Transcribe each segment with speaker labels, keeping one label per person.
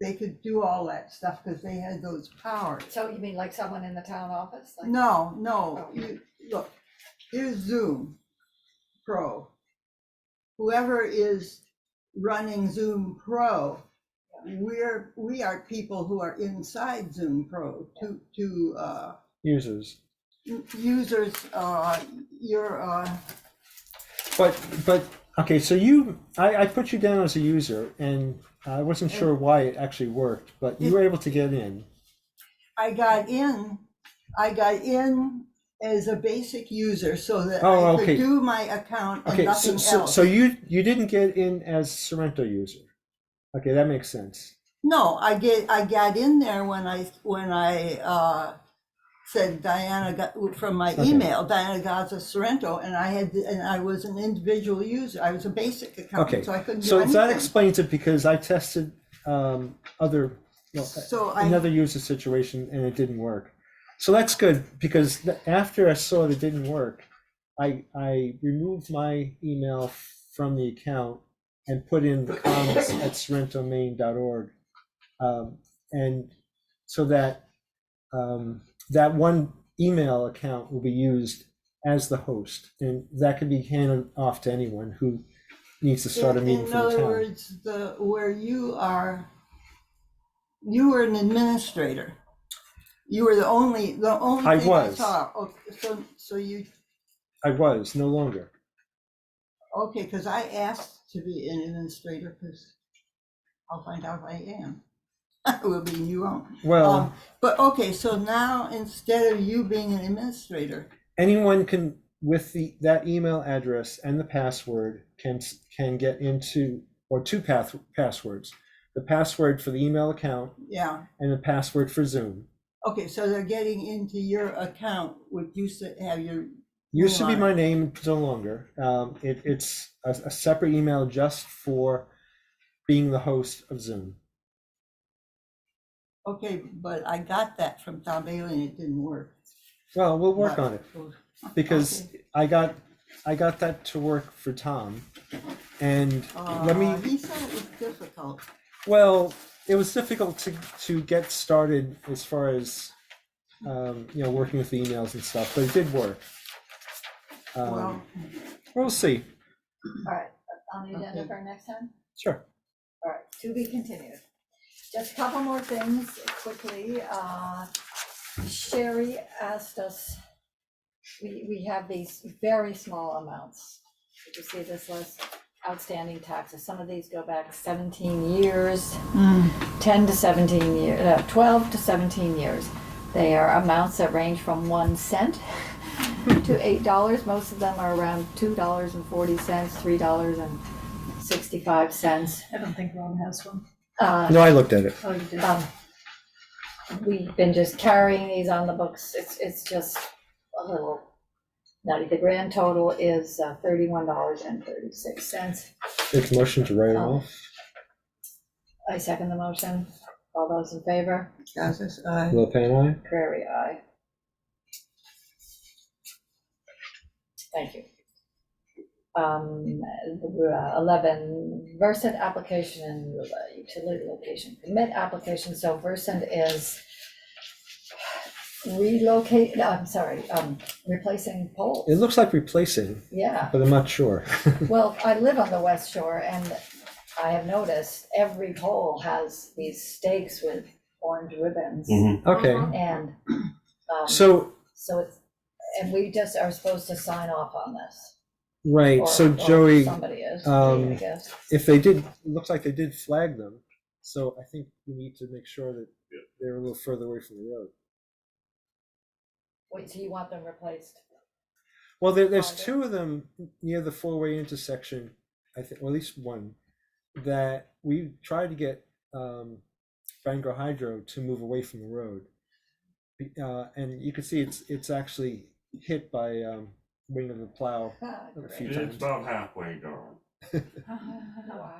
Speaker 1: they could do all that stuff because they had those powers.
Speaker 2: So you mean like someone in the town office? Like-
Speaker 1: No, no,
Speaker 2: Oh.
Speaker 1: you, look, here's Zoom Pro. Whoever is running Zoom Pro, we're, we are people who are inside Zoom Pro to, to, uh,
Speaker 3: users.
Speaker 1: u- users, uh, your, uh,
Speaker 3: But but okay, so you I, I put you down as a user and I wasn't sure why it actually worked, but you were able to get in.
Speaker 1: I got in, I got in as a basic user so that I
Speaker 3: Oh,
Speaker 1: could
Speaker 3: okay.
Speaker 1: do my account and
Speaker 3: Okay, so
Speaker 1: nothing
Speaker 3: so,
Speaker 1: else.
Speaker 3: so you you didn't get in as Sorrento user. Okay, that makes sense.
Speaker 1: No, I get, I got in there when I, when I, uh, said Diana got, from my
Speaker 3: Okay.
Speaker 1: email, Diana Gaza Sorrento, and I had, and I was an individual user. I was a basic
Speaker 3: Okay,
Speaker 1: account, so I couldn't do
Speaker 3: So that
Speaker 1: anything.
Speaker 3: explains it because I tested um, other well,
Speaker 1: So I,
Speaker 3: another user situation and it didn't work. So that's good because th- after I saw that it didn't work, I I removed my email from the account and put in the comments at sorrentomaine.org. Um, and so that um, that one email account will be used as the host and that can be handed off to anyone who needs to start a
Speaker 1: in in
Speaker 3: meeting for the
Speaker 1: other
Speaker 3: town.
Speaker 1: words, the, where you are, you were an administrator. You were the only, the only
Speaker 3: I
Speaker 1: thing I
Speaker 3: was.
Speaker 1: saw. Oh, So, so you,
Speaker 3: I was no longer.
Speaker 1: okay, because I asked to be an administrator, because I'll find out if I am. Will be, you won't.
Speaker 3: Well,
Speaker 1: Um, But, okay, so now instead of you being an administrator,
Speaker 3: anyone can with the that email address and the password can can get into or two path passwords the password for the email account
Speaker 1: yeah,
Speaker 3: and the password for zoom
Speaker 1: okay, so they're getting into your account, which used to have your,
Speaker 3: used to be
Speaker 1: Right.
Speaker 3: my name it's no longer um, it, it's a, a separate email just for being the host of zoom
Speaker 1: okay, but I got that from Tom Bailey and it didn't work.
Speaker 3: well we'll work on it
Speaker 1: So-
Speaker 3: because i got i got that to work for tom and let me
Speaker 1: Uh, He said it was difficult.
Speaker 3: Well, it was difficult to to get started as far as um, you know working with the emails and stuff, but it did work. Um,
Speaker 1: Well,
Speaker 3: we'll see.
Speaker 2: All right, on the agenda
Speaker 1: Okay.
Speaker 2: for next time?
Speaker 3: Sure.
Speaker 2: All right, to be continued. Just a couple more things quickly. Uh, Sherry asked us, we, we have these very small amounts. Did you see this list? Outstanding taxes. Some of these go back seventeen years, ten to seventeen years, uh, twelve to seventeen years. They are amounts that range from one cent to eight dollars. Most of them are around two dollars and forty cents, three dollars and sixty-five cents.
Speaker 4: I don't think Ron has one.
Speaker 2: Uh,
Speaker 3: No, I looked at it.
Speaker 4: Oh, you did.
Speaker 2: um, We've been just carrying these on the books, it's, it's just a little nutty. The grand total is uh, thirty-one dollars and thirty-six cents.
Speaker 3: It's motion to write it off.
Speaker 2: I second the motion, all those in favor,
Speaker 1: Gaza's, uh,
Speaker 3: Lopan,
Speaker 2: Prairie, aye. Thank you. Um, uh, eleven, Versant application and uh, utility location permit application, so Versant is relocate, no, I'm sorry, um, replacing poles.
Speaker 3: It looks like replacing,
Speaker 2: Yeah,
Speaker 3: but I'm not sure.
Speaker 2: well, I live on the west shore and I have noticed every pole has these stakes with orange ribbons
Speaker 3: Okay,
Speaker 2: and, um,
Speaker 3: so
Speaker 2: so it's, and we just are supposed to sign off on this.
Speaker 3: right,
Speaker 2: or-
Speaker 3: so
Speaker 2: or
Speaker 3: Joey,
Speaker 2: Somebody is,
Speaker 3: um,
Speaker 2: I guess.
Speaker 3: if they did, it looks like they did flag them. So I think we need to make sure that they're a little further away from the road.
Speaker 2: Wait, so you want them replaced?
Speaker 3: Well, there, there's
Speaker 2: Find it.
Speaker 3: two of them near the four-way intersection, I think, or at least one, that we tried to get um, Bangor Hydro to move away from the road. Be- Uh, and you can see it's it's actually hit by um, wing of the plow.
Speaker 2: Ah,
Speaker 3: A
Speaker 2: great. Oh,
Speaker 3: few
Speaker 5: It's
Speaker 3: times.
Speaker 5: about halfway gone.
Speaker 4: Uh,
Speaker 2: Wow,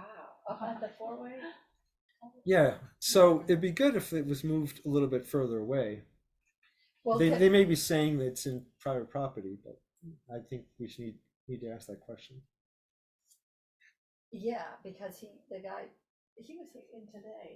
Speaker 2: Uh-huh. at the four-way?
Speaker 3: Yeah, so it'd be good if it was moved a little bit further away.
Speaker 2: Well,
Speaker 3: They,
Speaker 2: could-
Speaker 3: they may be saying that it's in private property, but I think we should need, need to ask that question.
Speaker 2: yeah, because he, the guy, he was in today